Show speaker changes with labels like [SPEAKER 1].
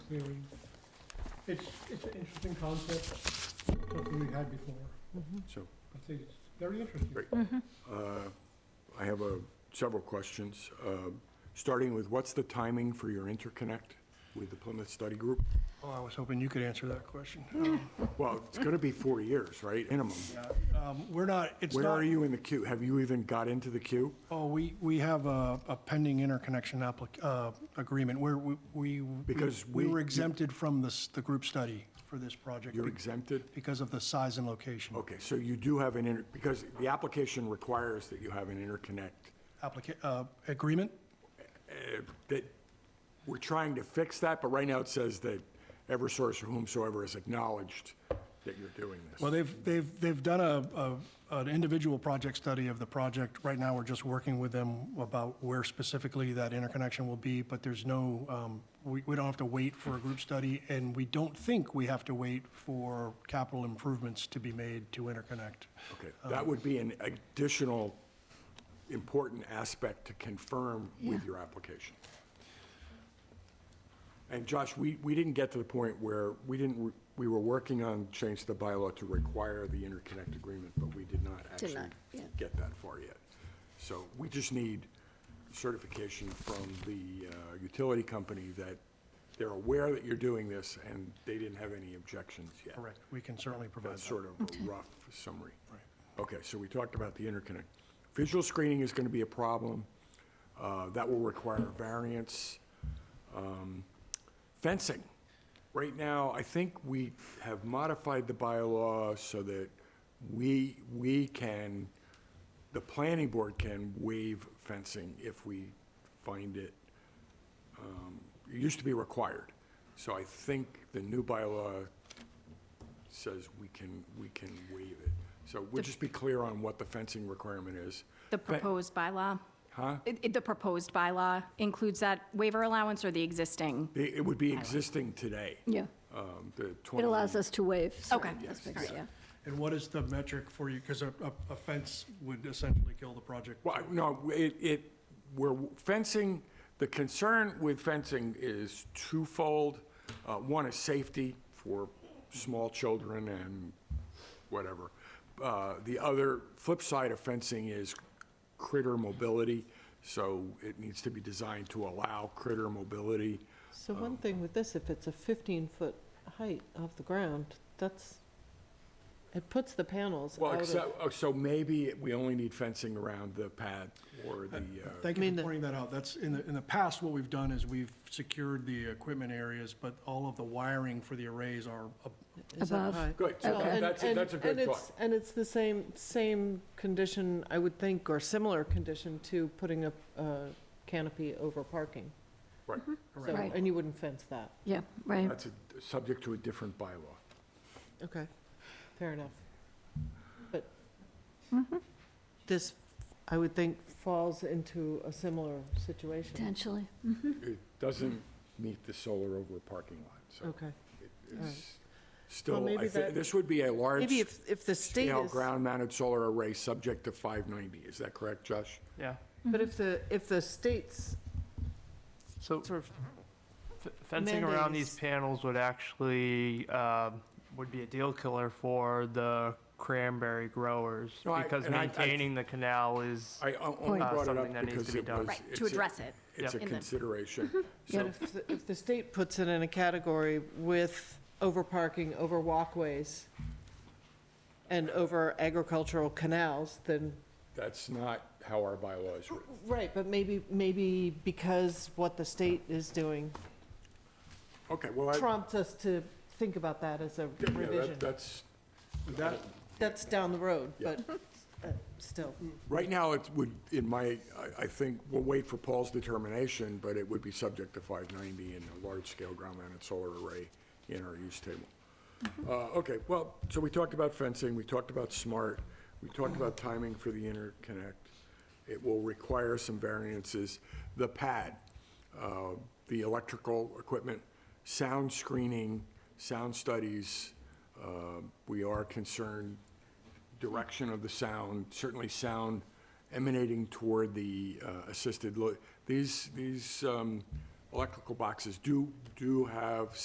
[SPEAKER 1] hearing. It's, it's an interesting concept, something we had before.
[SPEAKER 2] So,
[SPEAKER 1] I think it's very interesting.
[SPEAKER 2] Great.
[SPEAKER 3] Mm-hmm.
[SPEAKER 2] uh, I have uh, several questions, uh, starting with what's the timing for your interconnect with the Plymouth Study Group?
[SPEAKER 3] Oh, I was hoping you could answer that question.
[SPEAKER 2] Well, it's going to be four years, right, minimum?
[SPEAKER 3] Um, We're not, it's
[SPEAKER 2] Where are
[SPEAKER 3] not,
[SPEAKER 2] you in the queue? Have you even got into the queue?
[SPEAKER 3] oh, we, we have a a pending interconnection applic, uh, agreement where we, we.
[SPEAKER 2] Because
[SPEAKER 3] We
[SPEAKER 2] we-
[SPEAKER 3] were exempted from this, the group study for this project
[SPEAKER 2] You're exempted?
[SPEAKER 3] because of the size and location.
[SPEAKER 2] Okay, so you do have an, inter- because the application requires that you have an interconnect.
[SPEAKER 3] Applica, uh, agreement?
[SPEAKER 2] That, we're trying to fix that, but right now it says that Eversource or whomsoever has acknowledged that you're doing this.
[SPEAKER 3] Well, they've, they've, they've done a, a, an individual project study of the project. Right now, we're just working with them about where specifically that interconnection will be, but there's no, um, we, we don't have to wait for a group study, and we don't think we have to wait for capital improvements to be made to interconnect.
[SPEAKER 2] Okay, that would be an additional important aspect to confirm with your application. And Josh, we, we didn't get to the point where, we didn't, re- we were working on change to the bylaw to require the interconnect agreement, but we did not
[SPEAKER 4] Did
[SPEAKER 2] actually
[SPEAKER 4] not, yeah.
[SPEAKER 2] get that far yet. So we just need certification from the uh, utility company that they're aware that you're doing this, and they didn't have any objections yet.
[SPEAKER 3] Correct, we can certainly provide
[SPEAKER 2] That's
[SPEAKER 3] that.
[SPEAKER 2] sort of a rough summary. Okay, so we talked about the interconnect. Visual screening is going to be a problem. uh, That will require a variance. Um, Fencing. Right now, I think we have modified the bylaw so that we, we can, the planning board can waive fencing if we find it um, it used to be required. So I think the new bylaw says we can, we can waive it. So we'll just be clear on what the fencing requirement is.
[SPEAKER 5] The proposed bylaw?
[SPEAKER 2] Huh?
[SPEAKER 5] It- it- The proposed bylaw includes that waiver allowance or the existing?
[SPEAKER 2] It it would be existing today,
[SPEAKER 4] Yeah,
[SPEAKER 2] um, the 20.
[SPEAKER 4] it allows us to waive. certain
[SPEAKER 5] Okay. Yes,
[SPEAKER 4] aspects,
[SPEAKER 5] yes.
[SPEAKER 4] yeah.
[SPEAKER 3] And what is the metric for you, because a, a- a fence would essentially kill the project?
[SPEAKER 2] Well, no, it, it, we're fencing, the concern with fencing is twofold. Uh, One is safety for small children and whatever. Uh, The other flip side of fencing is critter mobility, so it needs to be designed to allow critter mobility.
[SPEAKER 6] So
[SPEAKER 2] Oh.
[SPEAKER 6] one thing with this, if it's a 15-foot height off the ground, that's, it puts the panels
[SPEAKER 2] Well,
[SPEAKER 6] out of,
[SPEAKER 2] except, oh, so maybe we only need fencing around the pad or the, uh,
[SPEAKER 3] Thank you
[SPEAKER 6] I mean,
[SPEAKER 3] for
[SPEAKER 6] the-
[SPEAKER 3] pointing that out. That's, in the, in the past, what we've done is we've secured the equipment areas, but all of the wiring for the arrays are, up-
[SPEAKER 6] is that
[SPEAKER 4] Above.
[SPEAKER 6] high?
[SPEAKER 2] good, so
[SPEAKER 6] Well, and-
[SPEAKER 2] that's, a-
[SPEAKER 6] and-
[SPEAKER 2] that's a
[SPEAKER 6] and
[SPEAKER 2] good
[SPEAKER 6] it's-
[SPEAKER 2] thought.
[SPEAKER 6] And it's the same, same condition, I would think, or similar condition to putting a a canopy over parking.
[SPEAKER 2] Right.
[SPEAKER 6] So,
[SPEAKER 4] Right.
[SPEAKER 6] and you wouldn't fence that.
[SPEAKER 4] Yeah, right.
[SPEAKER 2] That's a- subject to a different bylaw.
[SPEAKER 6] Okay, fair enough. But
[SPEAKER 4] Mm-hmm.
[SPEAKER 6] this, I would think, falls into a similar situation.
[SPEAKER 4] Potentially.
[SPEAKER 2] It doesn't meet the solar over a parking lot, so
[SPEAKER 6] Okay.
[SPEAKER 2] it-
[SPEAKER 6] all
[SPEAKER 2] it's
[SPEAKER 6] right.
[SPEAKER 2] still,
[SPEAKER 6] maybe
[SPEAKER 2] I think,
[SPEAKER 6] that-
[SPEAKER 2] this would be a
[SPEAKER 6] Maybe if, if the state
[SPEAKER 2] large-scale
[SPEAKER 6] is.
[SPEAKER 2] ground-mounted solar array subject to 590. Is that correct, Josh?
[SPEAKER 7] Yeah,
[SPEAKER 6] But if the, if the state's
[SPEAKER 7] so
[SPEAKER 6] sort of,
[SPEAKER 7] f- fencing around these
[SPEAKER 6] mandates-
[SPEAKER 7] panels would actually, um, would be a deal killer for the cranberry growers,
[SPEAKER 2] No, I-
[SPEAKER 7] because
[SPEAKER 2] and I- I-
[SPEAKER 7] maintaining the canal is,
[SPEAKER 2] I o- only
[SPEAKER 7] Uh,
[SPEAKER 2] brought it
[SPEAKER 7] something
[SPEAKER 2] up
[SPEAKER 7] that needs
[SPEAKER 2] because
[SPEAKER 7] to be
[SPEAKER 2] it
[SPEAKER 7] done.
[SPEAKER 2] was.
[SPEAKER 5] Right, to
[SPEAKER 2] it's a-
[SPEAKER 5] address it.
[SPEAKER 2] It's a
[SPEAKER 5] in the-
[SPEAKER 2] consideration.
[SPEAKER 6] but
[SPEAKER 2] So,
[SPEAKER 6] if, the- if the state puts it in a category with over parking, over walkways, and over agricultural canals, then,
[SPEAKER 2] that's not how our bylaw is written.
[SPEAKER 6] right, but maybe, maybe because what the state is doing
[SPEAKER 2] Okay, well, I, yeah,
[SPEAKER 6] prompts us to think about that as a
[SPEAKER 2] yeah, that-
[SPEAKER 6] revision.
[SPEAKER 2] that's,
[SPEAKER 3] that,
[SPEAKER 6] That's down the road,
[SPEAKER 2] Yeah.
[SPEAKER 6] but uh, still.
[SPEAKER 2] right now, it would, in my, I- I think, we'll wait for Paul's determination, but it would be subject to 590 and a large-scale ground-mounted solar array in our use table. Uh, Okay, well, so we talked about fencing, we talked about smart, we talked about timing for the interconnect. It will require some variances. The pad, uh, the electrical equipment, sound screening, sound studies, uh, we are concerned, direction of the sound, certainly sound emanating toward the uh, assisted, lo- these, these um, electrical boxes do, do have